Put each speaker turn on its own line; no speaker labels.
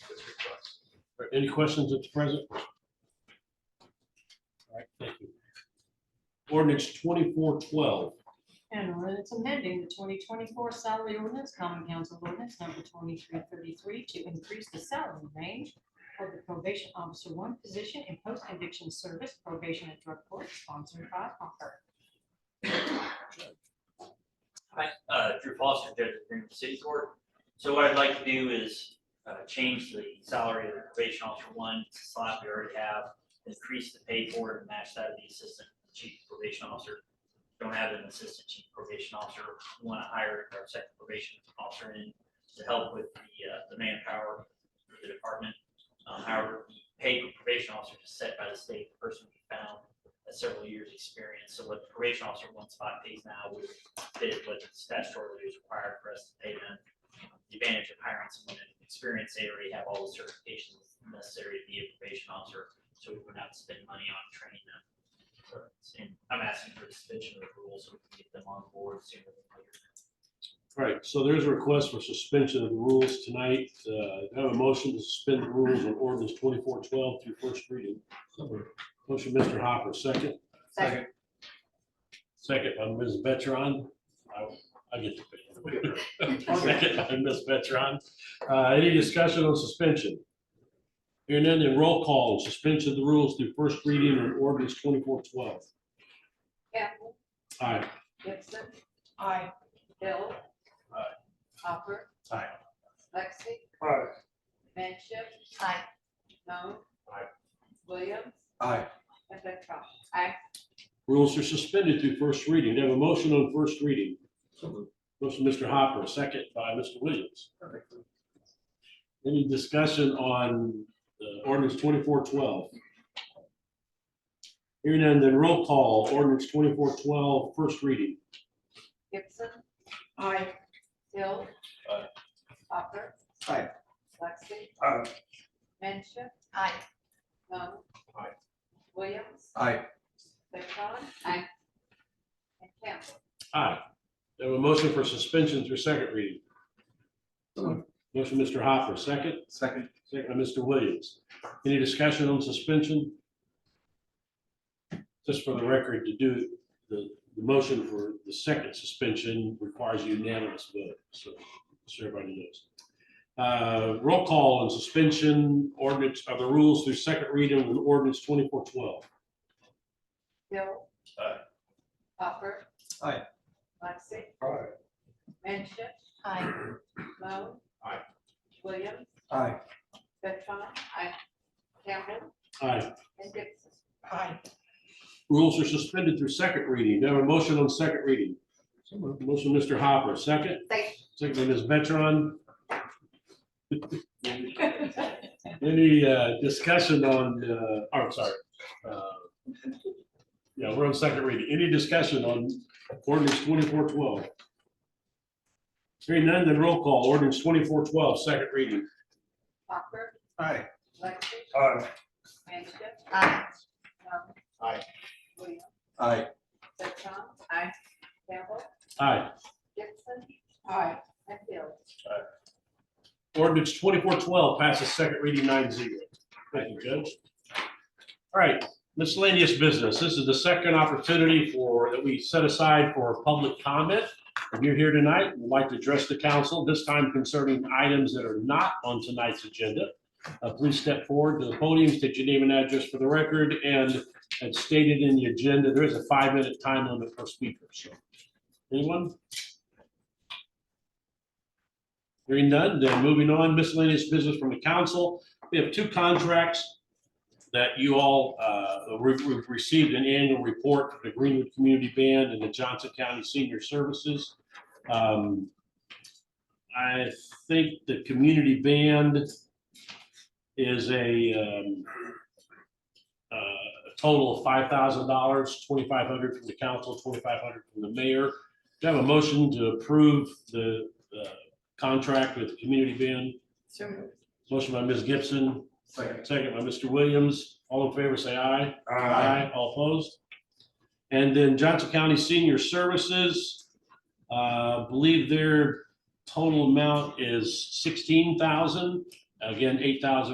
Any questions at the present? All right, thank you. Ordinance twenty-four twelve,
And an ordinance amending the twenty twenty-four salary ordinance, common council ordinance number twenty-three thirty-three to increase the salary range for the probation officer one position in post-conviction service probation and drug court sponsored by Hopper.
Hi, uh, Drew Foster, Judge of Greenwood City Court. So what I'd like to do is uh, change the salary of the probation officer one to slot we already have, increase the pay for it and match that of the assistant chief probation officer. Don't have an assistant chief probation officer, We want to hire our second probation officer in to help with the, uh, the manpower for the department. Um, However, the pay for probation officer is set by the state, the person we found has several years' experience. So what the probation officer one spot pays now would did what statutorily is required for us to pay them. The advantage of hiring someone in experience, they already E, have all the certifications necessary to be a probation officer, so we would not spend money on training them. So, And I'm asking for suspension of the rules so we can get them on board sooner than later.
all right, so there's a request for suspension of the rules tonight. Uh, do I have a motion to suspend the rules on ordinance twenty-four twelve through first reading. Motion, Mr. Hopper, second,
Second.
second by Ms. Betron. I- I get to pick. Second by Ms. Betron. Uh, any discussion on suspension? Hearing none, then roll call, on suspension of the rules through first reading on ordinance twenty-four twelve.
Campbell,
Aye.
Gibson,
Aye.
Hill.
Aye.
Hopper.
Aye.
Lexi.
Aye.
Manship. Aye. Moan.
Aye.
Williams.
Aye.
And Betron. Aye.
Rules are suspended through first reading. Do I have a motion on first reading? Motion, Mr. Hopper, second by Mr. Williams. Any discussion on uh, ordinance twenty-four twelve? Hearing none, then roll call, ordinance 2412, first reading.
Gibson. Aye. Hill.
Aye.
Hopper.
Aye.
Lexi.
Aye.
Manship. Aye. Moan.
Aye.
Williams.
Aye.
Betron. Aye. And Campbell.
Aye. Do I have a motion for suspension through second reading?
So moved.
Motion, Mr. Hopper, second,
Second.
second by Mr. Williams. Any discussion on suspension? Just for the record, to do the, the motion for the second suspension requires unanimous vote, so, so everybody knows. Uh, roll call on suspension ordinance of the rules through second reading of ordinance twenty-four twelve.
Hill.
Aye.
Hopper.
Aye.
Lexi.
Aye.
Manship. Aye. Moan.
Aye.
Williams.
Aye.
Betron. Aye. Campbell.
Aye,
And Gibson.
Aye.
rules are suspended through second reading. Do I have a motion on second reading? Motion, Mr. Hopper, second,
Second.
second by Ms. Betron. Any uh, discussion on, uh, oh, I'm sorry. Uh, Yeah, we're on second reading. Any discussion on ordinance twenty-four twelve? Hearing none, then roll call. Ordinance 2412, second reading.
Hopper.
Aye.
Lexi.
Aye.
Manship. Aye. Moan.
Aye.
Williams.
Aye.
Betron. Aye. Campbell.
Aye.
Gibson. Aye. And Hill.
Ordinance 2412 passes second reading 9-0. Thank you, Judge. All right, miscellaneous business. This is the second opportunity for, that we set aside for public comment. If you're here tonight, would like to address the council, this time concerning items that are not on tonight's agenda. Uh, Please step forward to the podium, state your name and address for the record, and as stated in the agenda, there is a five-minute time limit per speaker, so. Anyone? Hearing none, then moving on, miscellaneous business from the council. We have two contracts that you all, uh, we- we've received an annual report for the Greenwood Community Band and the Johnson County Senior Services. Um, I think the community band is a um, uh, a total of five thousand dollars, twenty-five hundred from the council, twenty-five hundred from the mayor. Do I have a motion to approve the uh, contract with the community band. Motion by Ms. Gibson,
Second.
second by Mr. Williams. All in favor, say aye.
Aye.
All opposed? And then Johnson County Senior Services, uh, believe their total amount is sixteen thousand. Again, eight thousand